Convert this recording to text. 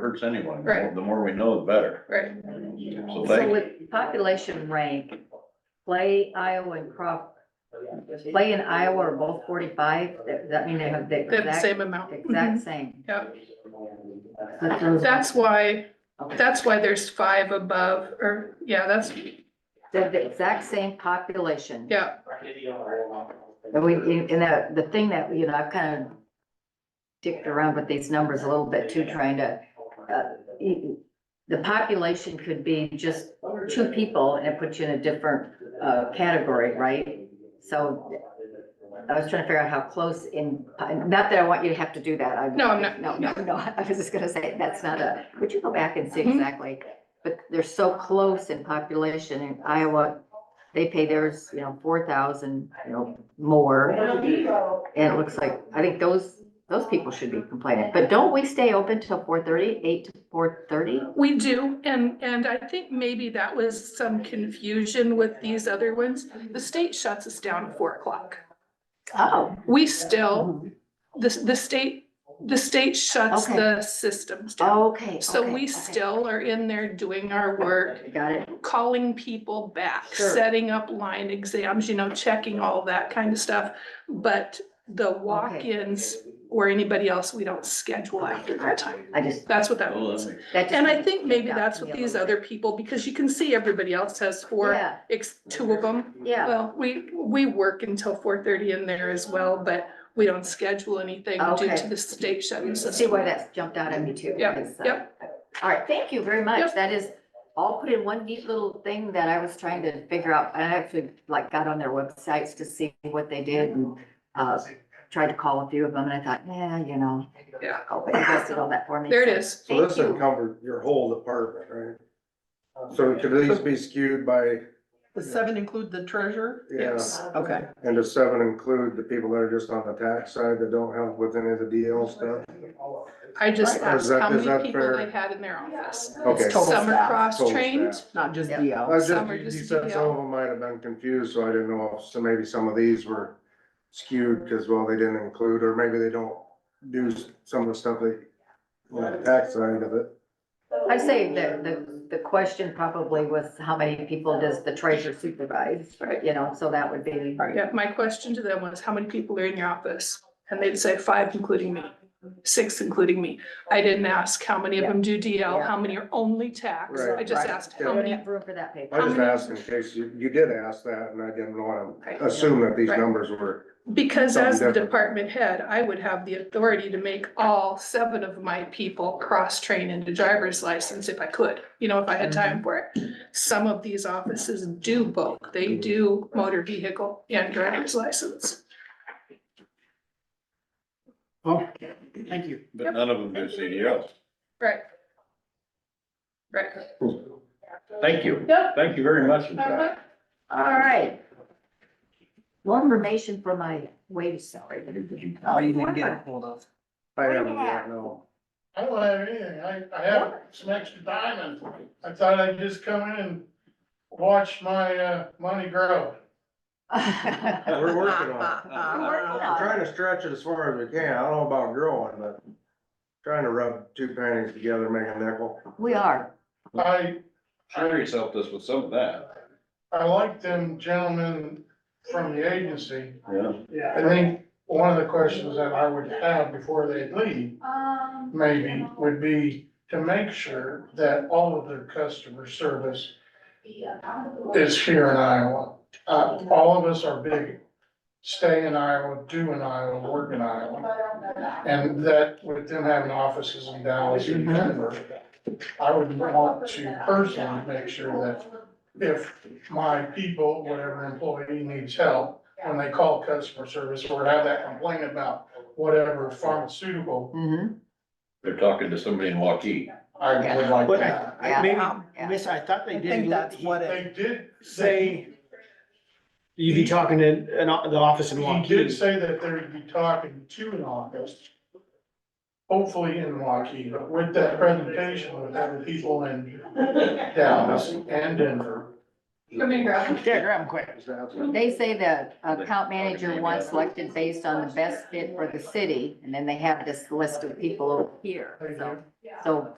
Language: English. hurts anyone. Right. The more we know, the better. Right. So So thank, with population rank, Clay, Iowa and Crawford, Clay and Iowa are both forty-five, That- that mean they have the They have the exact, same amount. exact same. Yeah, That's those- that's why, okay. that's why there's five above, or, yeah, that's, They have the exact same population. yeah, And we, and and that, the thing that, you know, I've kind of dicked around with these numbers a little bit too, trying to, uh, e- the population could be just two people and it puts you in a different, uh, category, right? So I was trying to figure out how close in, not that I want you to have to do that. I- No, I'm not- No, no, no, I was just gonna say, that's not a, would you go back and see Mhm. exactly? But they're so close in population in Iowa, they pay theirs, you know, four thousand, you know, more. And it looks like, I think those, those people should be complaining, but don't we stay open till four thirty, eight to four thirty? we do, and, and I think maybe that was some confusion with these other ones. The state shuts us down at four o'clock. Oh. We still, the, the state, the state shuts Okay. Oh, the systems down. Okay. So okay, we okay. still are in there doing our work, Got it, calling people back, Sure. setting up line exams, you know, checking all that kind of stuff. But the walk-ins or anybody else, we don't schedule after that time. I just, That's what that well, means. that makes- that just. And I think maybe that's what these other people, because you can see everybody else has four, Yeah, ex- two of them. yeah, Well, we, we work until four thirty in there as well, but we don't schedule anything due Okay. to the state shutting see system. why that's jumped out at me too. Yep, because, uh, yep. All right, thank you very much, Yep. that is all put in one neat little thing that I was trying to figure out, and I actually like got on their websites to see what they did and, uh, tried to call a few of them, and I thought, yeah, you know. Yeah. Oh, but you guys did all that for me. There it so is. So this Thank you. uncovered your whole department, right? So it could at least be skewed by, The seven include the treasurer? yeah, Okay, and does seven include the people that are just on the tax side that don't help with any of the DL stuff? I just Is asked that- how many is that people fair? they had in their office. Okay. Total Some are staff. cross-trained. Total not just Yeah. I DL. was just, Some are you just said some DL. of them might have been confused, so I didn't know if, so maybe some of these were skewed because, well, they didn't include, or maybe they don't do s- some of the stuff that, on the tax side of it. I say that the, the question probably was how many people does the treasurer supervise, Right. you know, so that would be. Yeah, my question to them was, how many people are in your office? And they'd say five, including me, six, including me. I didn't ask how many of them do DL, Yeah. how many are only tax. Right. I just Right. asked We how don't many. have room for that paper. I just many- asked in case you, you did ask that and I didn't want Right. to assume that these Right. numbers were, Because as the Something different. department head, I would have the authority to make all seven of my people cross-train into driver's license if I could, you know, if I Mm-hmm. had time for it. Some of these offices do both. They Mm-hmm. do motor vehicle and driver's license. Thank you. but none of them do CDL. Right. Right. Thank you. Yep. Uh-huh. Thank you very much. in fact. All right. More information for my wage salary. Oh, you didn't get a hold of. I What do you haven't have? yet, no. I don't have anything, I, I have some extra time and I thought I'd just come in and watch my, uh, money grow. We're working Uh, on it. on I'm trying to stretch it as far as we can. I don't know about growing, but trying to rub two panties together, make a nickel. We are. I, Sherry's helped us with some of that. I like them gentlemen from the agency. Yeah. I think one of the questions that I would have before they leave, maybe, would be to make sure that all of their customer service is here in Iowa. Uh, all of us are big, stay in Iowa, do in Iowa, work in Iowa. And that with them having offices in Dallas and Denver, I would want to personally make sure that if my people, whatever employee needs help, when they call customer service or have that complaint about whatever pharmaceutical, Mm-hmm. Mhm. They're talking to somebody in Waukee. I would like But that. I, Yeah. I maybe, Yeah. Miss, I thought they I did. think that's what it, They did say, Say, you'd be talking to an, o- the office in he did Waukee. say that they would be talking to an office, hopefully in Waukee, but with that presentation, with having people in Dallas and Denver. Yeah, grab them quick. They say the account manager wants selected based on the best fit for the city, and then they have this list of people over here, so. So